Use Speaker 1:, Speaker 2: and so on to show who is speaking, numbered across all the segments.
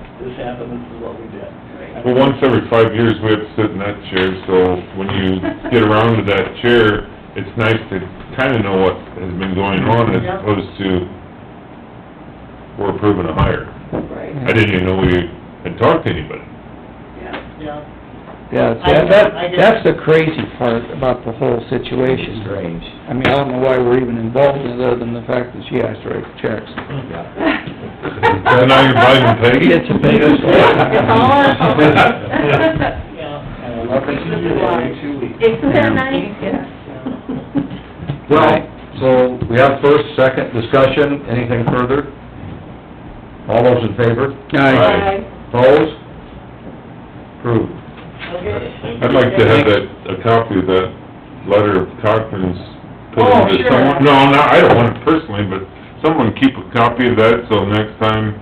Speaker 1: that, but this is what we did.
Speaker 2: Right.
Speaker 3: Well, once every five years, we have to sit in that chair, so when you get around to that chair, it's nice to kinda know what has been going on as
Speaker 1: Yep.
Speaker 3: opposed to we're approving a hire.
Speaker 2: Right,
Speaker 3: I didn't even know we had talked to anybody.
Speaker 2: yeah.
Speaker 1: Yeah.
Speaker 4: Yeah, so
Speaker 1: I did-
Speaker 4: that,
Speaker 1: I did-
Speaker 4: that's the crazy part about the whole situation. Strange. I mean, I don't know why we're even involved in it, other than the fact that she has to write checks.
Speaker 3: So now you're blaming Peggy?
Speaker 4: It's a big- It's all
Speaker 2: our fault.
Speaker 1: Yeah. And I love that you do that every two weeks.
Speaker 2: Isn't that nice? Yeah.
Speaker 5: Well, so we have first, second discussion, anything further? All those in favor?
Speaker 4: Aye.
Speaker 5: Opposed? Approved.
Speaker 1: Okay.
Speaker 3: I'd like to have that, a copy of that letter of Cochran's put
Speaker 1: Oh,
Speaker 3: into
Speaker 1: sure.
Speaker 3: someone. No, no, I don't want it personally, but someone keep a copy of that, so next time,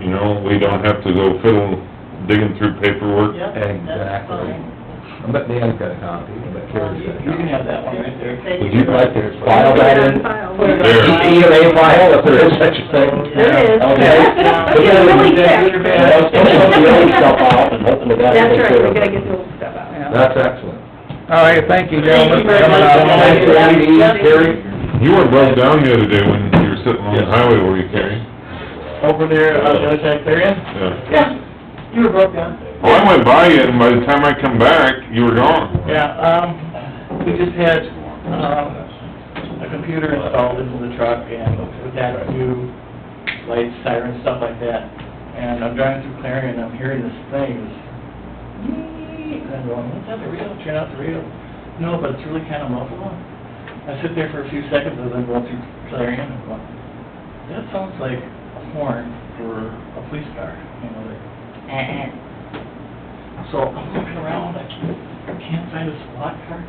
Speaker 3: you know, we don't have to go fiddle, digging through paperwork.
Speaker 1: Yep, that's
Speaker 5: Exactly.
Speaker 1: fine.
Speaker 5: I bet Dan's got a copy, I bet
Speaker 1: Well,
Speaker 5: Terry's
Speaker 1: You
Speaker 5: got a
Speaker 1: you can
Speaker 5: copy.
Speaker 1: have that one right there.
Speaker 5: Would you like to file that in?
Speaker 1: Put it on
Speaker 3: There.
Speaker 1: file.
Speaker 5: EMA file, if there is such a thing.
Speaker 2: There is.
Speaker 5: Okay.
Speaker 2: It's really thick.
Speaker 5: Yeah, don't let the old stuff out and hopefully that will
Speaker 2: That's
Speaker 5: take
Speaker 2: right,
Speaker 5: care
Speaker 2: we
Speaker 5: of
Speaker 2: gotta
Speaker 5: it.
Speaker 2: get the old stuff out.
Speaker 5: That's excellent.
Speaker 4: All right, thank you,
Speaker 1: Thank
Speaker 4: gentlemen.
Speaker 1: you very much.
Speaker 5: Thanks for meeting, Terry.
Speaker 3: You weren't run down the other day when you were sitting on the highway, were you, Kerry?
Speaker 1: Over there, on the other side there, yeah?
Speaker 3: Yeah.
Speaker 1: Yeah, you were broke down.
Speaker 3: Well, Oh, I went by you, and by the time I come back, you were gone.
Speaker 1: Yeah, um, we just had, um, a computer installed into the truck and with that new lights, sirens, stuff like that. And I'm driving through Clarion and I'm hearing this thing, this, and I'm going, is that the radio? Turn out the radio. No, but it's really kind of muffled. I sit there for a few seconds as I'm going through Clarion and I'm going, that sounds like a horn for a police car, you know, like, eh, eh. So I'm looking around, I I can't find a squad car,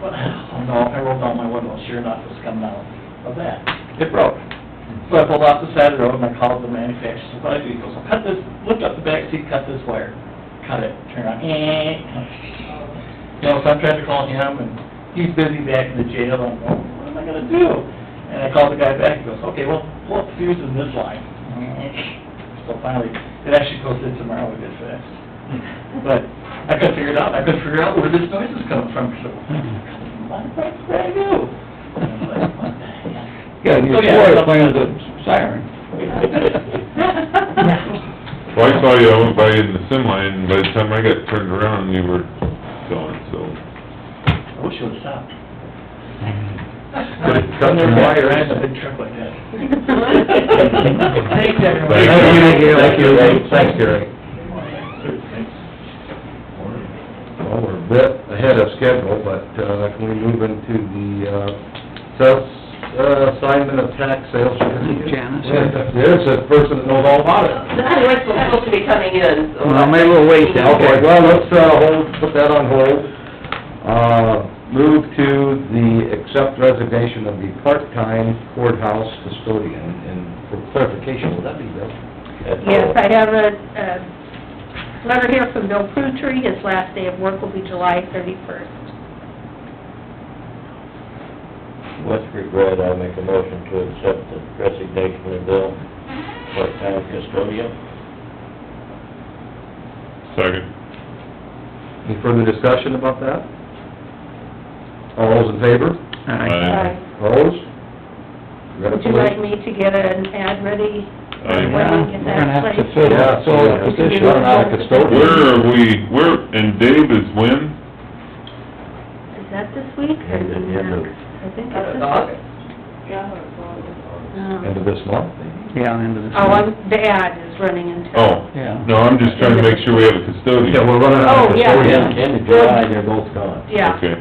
Speaker 1: but, oh no, I rolled down my window, sure enough, it's coming out of that.
Speaker 4: It broke.
Speaker 1: So I pulled off the side of the road and I called the manufacturer, so what I do, he goes, "Well, cut this, lift up the back seat, cut this wire, cut it, turn on, eh. You know, so I'm trying to call him and he's busy back in the jail, I'm going, what am I gonna do? And I called the guy back, he goes, okay, well, pull up the fuse in this line. So finally, it actually goes in tomorrow, we get fixed. But I couldn't figure it out, I couldn't figure out where this noise is coming from, so, what the heck did I do? And I was like, what the heck?
Speaker 4: Yeah, and you
Speaker 1: Oh, yeah.
Speaker 4: swore to playing the siren.
Speaker 3: Well, I saw you, I went by you in the sim line, and by the time I got turned around, you were gone, so.
Speaker 1: I wish it would stop.
Speaker 5: Could it cut your wires?
Speaker 1: I had a big truck like that. Thanks, everyone.
Speaker 3: Thank you.
Speaker 5: Thank you, Ray. Thanks, Terry. Well, we're a bit ahead of schedule, but, uh, can we move into the, uh, sales, uh, assignment of tax sales certificate?
Speaker 4: Janice.
Speaker 5: Yeah, There's a person that knows all about it.
Speaker 2: That's what's supposed to be coming in, so.
Speaker 4: Well, maybe we'll wait then.
Speaker 5: Okay, well, let's, uh, hold, put that on hold. Uh, move to the accept resignation of the part-time courthouse custodian, and for clarification, would that be Bill?
Speaker 6: Yes, I have a, a letter here from Bill Prutry, his last day of work will be July thirty-first.
Speaker 7: With regret, I make a motion to accept the resignation of Bill, part-time custodian.
Speaker 3: Second.
Speaker 5: Any further discussion about that? All those in favor?
Speaker 4: Aye.
Speaker 5: Opposed? Got a
Speaker 6: Would you like me to get an ad ready?
Speaker 3: Aye.
Speaker 4: Well, we're gonna have to fill,
Speaker 5: Yeah, so,
Speaker 4: fill the position.
Speaker 5: Run out of custodian.
Speaker 3: Where are we, where, and Dave is when?
Speaker 6: Is that this week? or
Speaker 7: End of- end of-
Speaker 6: I think that's this week.
Speaker 5: End of
Speaker 6: No.
Speaker 5: this month, maybe?
Speaker 4: Yeah, into the...
Speaker 6: Oh, I'm, the ad is running into.
Speaker 3: Oh,
Speaker 4: Yeah.
Speaker 3: no, I'm just trying to make sure we have a custodian.
Speaker 5: Yeah, we're running out
Speaker 6: Oh,
Speaker 5: of
Speaker 6: yeah.
Speaker 5: custodian.
Speaker 7: End of July, they're both gone.
Speaker 6: Yeah,
Speaker 3: Okay,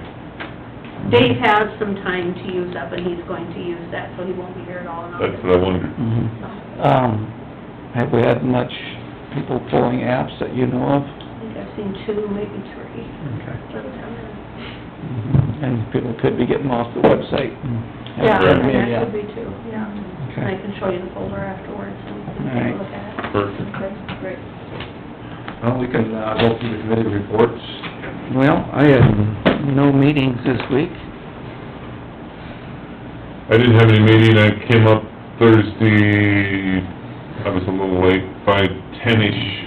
Speaker 6: Dave has some time to use up, and he's going to use that, so he won't be here at all in
Speaker 3: that's
Speaker 6: August.
Speaker 3: what I wondered.
Speaker 4: Mhm.
Speaker 6: So,
Speaker 4: Um, have we had much people pulling apps that you know of?
Speaker 6: I think I've seen two, maybe three.
Speaker 4: Okay.
Speaker 6: sometime.
Speaker 4: And people could be getting off the website.
Speaker 6: Yeah,
Speaker 3: Right.
Speaker 6: and that should be too, yeah. And I
Speaker 4: Okay.
Speaker 6: can show you the folder afterwards and you can take a look at it.
Speaker 3: Perfect.
Speaker 6: Okay, great.
Speaker 5: Well, we can, uh, go through the committee reports.
Speaker 4: Well, I had no meetings this week.
Speaker 3: I didn't have any meeting, I came up Thursday, I was a little late, by ten-ish,